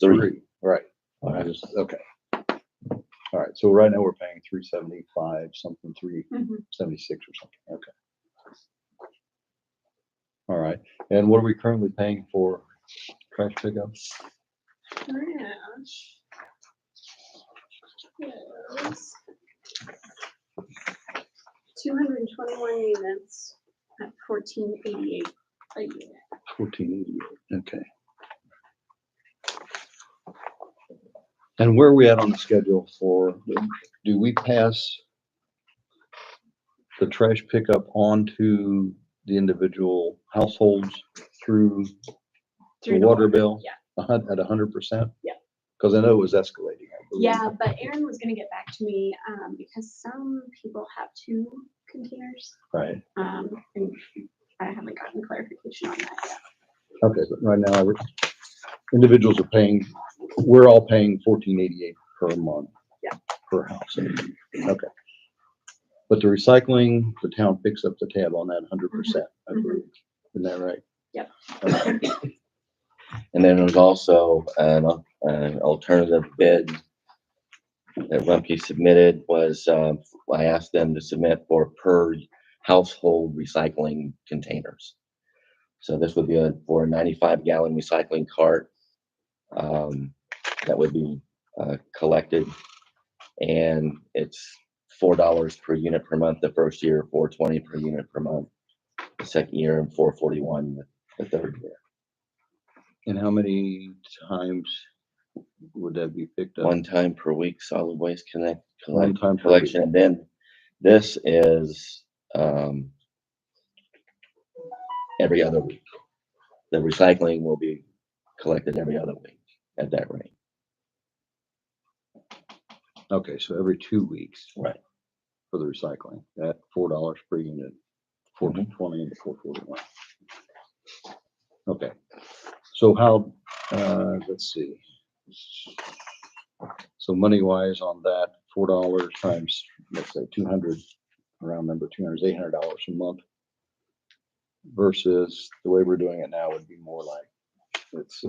three. Right, All I right. just, okay. All right, so right now we're paying three seventy-five, something, three Mhm. seventy-six or something, okay. All right, and what are we currently paying for trash pickup? Trash. Yes. Two hundred and twenty-one units at fourteen eighty-eight a unit. Fourteen eighty-eight, okay. And where are we at on the schedule for, do we pass the trash pickup on to the individual households through the through the water bill? yeah. A hun, at a hundred percent? Yeah. Cause I know it was escalating. I believe. Yeah, but Aaron was gonna get back to me, um, because some people have two containers, Right, um, and I haven't gotten clarification on that yet. okay, but right now, we're- individuals are paying, we're all paying fourteen eighty-eight per month. Yeah. Per house, okay. But the recycling, the town picks up the tab on that hundred percent, I Mhm. believe, isn't that right? Yep. Okay. And then there's also an, al- an alternative bid that Rumpke submitted was, uh, I asked them to submit for per household recycling containers. So this would be a, for a ninety-five gallon recycling cart, um, that would be, uh, collected. And it's four dollars per unit per month the first year, four twenty per unit per month, the second year, and four forty-one the third year. And how many times would that be picked up? one time per week solid waste connect One collect, time per week. collection and then this is um every other week the recycling will be collected every other week at that rate Okay, so every two weeks. Right. For the recycling, at four dollars per unit, four twenty and four forty-one. Okay, so how, uh, let's see. So money wise on that, four dollars times, let's say two hundred, round number, two hundred is eight hundred dollars a month. Versus the way we're doing it now would be more like, let's see,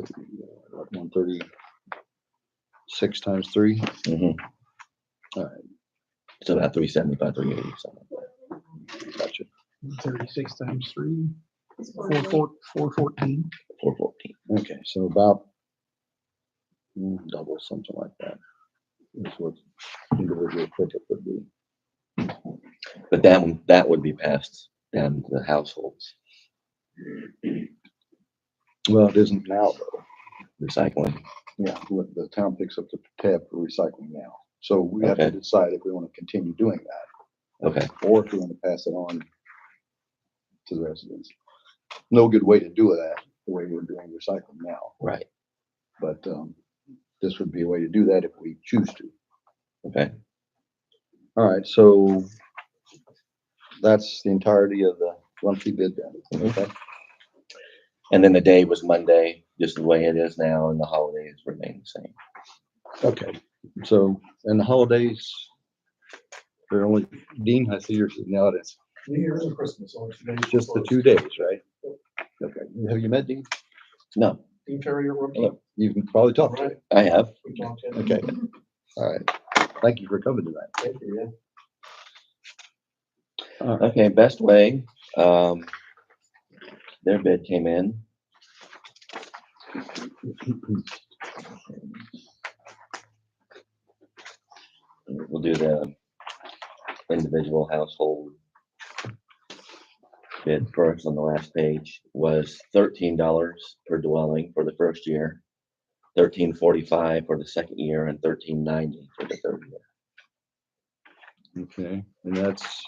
one thirty, six times three. Mhm. All right. so about 375 380 something Gotcha. Thirty-six times three, It's four, horrible. four, four fourteen. 414 Okay, so about mm, double, something like that. Is what individual pickup would be. but that one that would be passed down to the households Well, it isn't now though. recycling Yeah, what the town picks up the tab for recycling now. So we have to Okay. decide if we want to continue doing that okay or if we want to pass it on to the residents. No good way to do that, the way we're doing recycling now, right but um, this would be a way to do that if we choose to. okay All right, so that's the entirety of the monthly bid then, okay? and then the day was monday just the way it is now and the holidays remain the same Okay, so, and the holidays, they're only, Dean, I see yours, now it's New Year's and Christmas, only two days. just the two days, right? Okay, have you met Dean? no Team carrier rookie. Hello. You've probably talked to him, Right, i have we talked in. okay, all right, thank you for coming tonight. Thank you, yeah. Okay, Best Way, um, their bid came in. We'll do the individual household bid first on the last page was thirteen dollars per dwelling for the first year, thirteen forty-five for the second year, and thirteen ninety for the third year. Okay, and that's,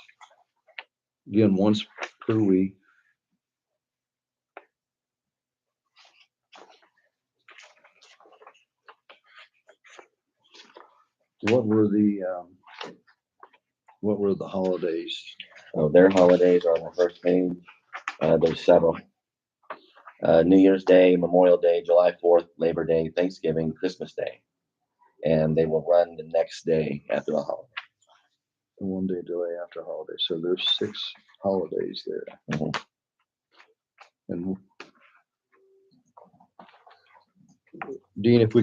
again, once per week. What were the, um, what were the holidays? So their holidays are on the first page. Uh, there's several. Uh, New Year's Day, Memorial Day, July fourth, Labor Day, Thanksgiving, Christmas Day. And they will run the next day after the holiday. The one day delay after holiday, so there's six holidays there. Mhm. And Dean, if we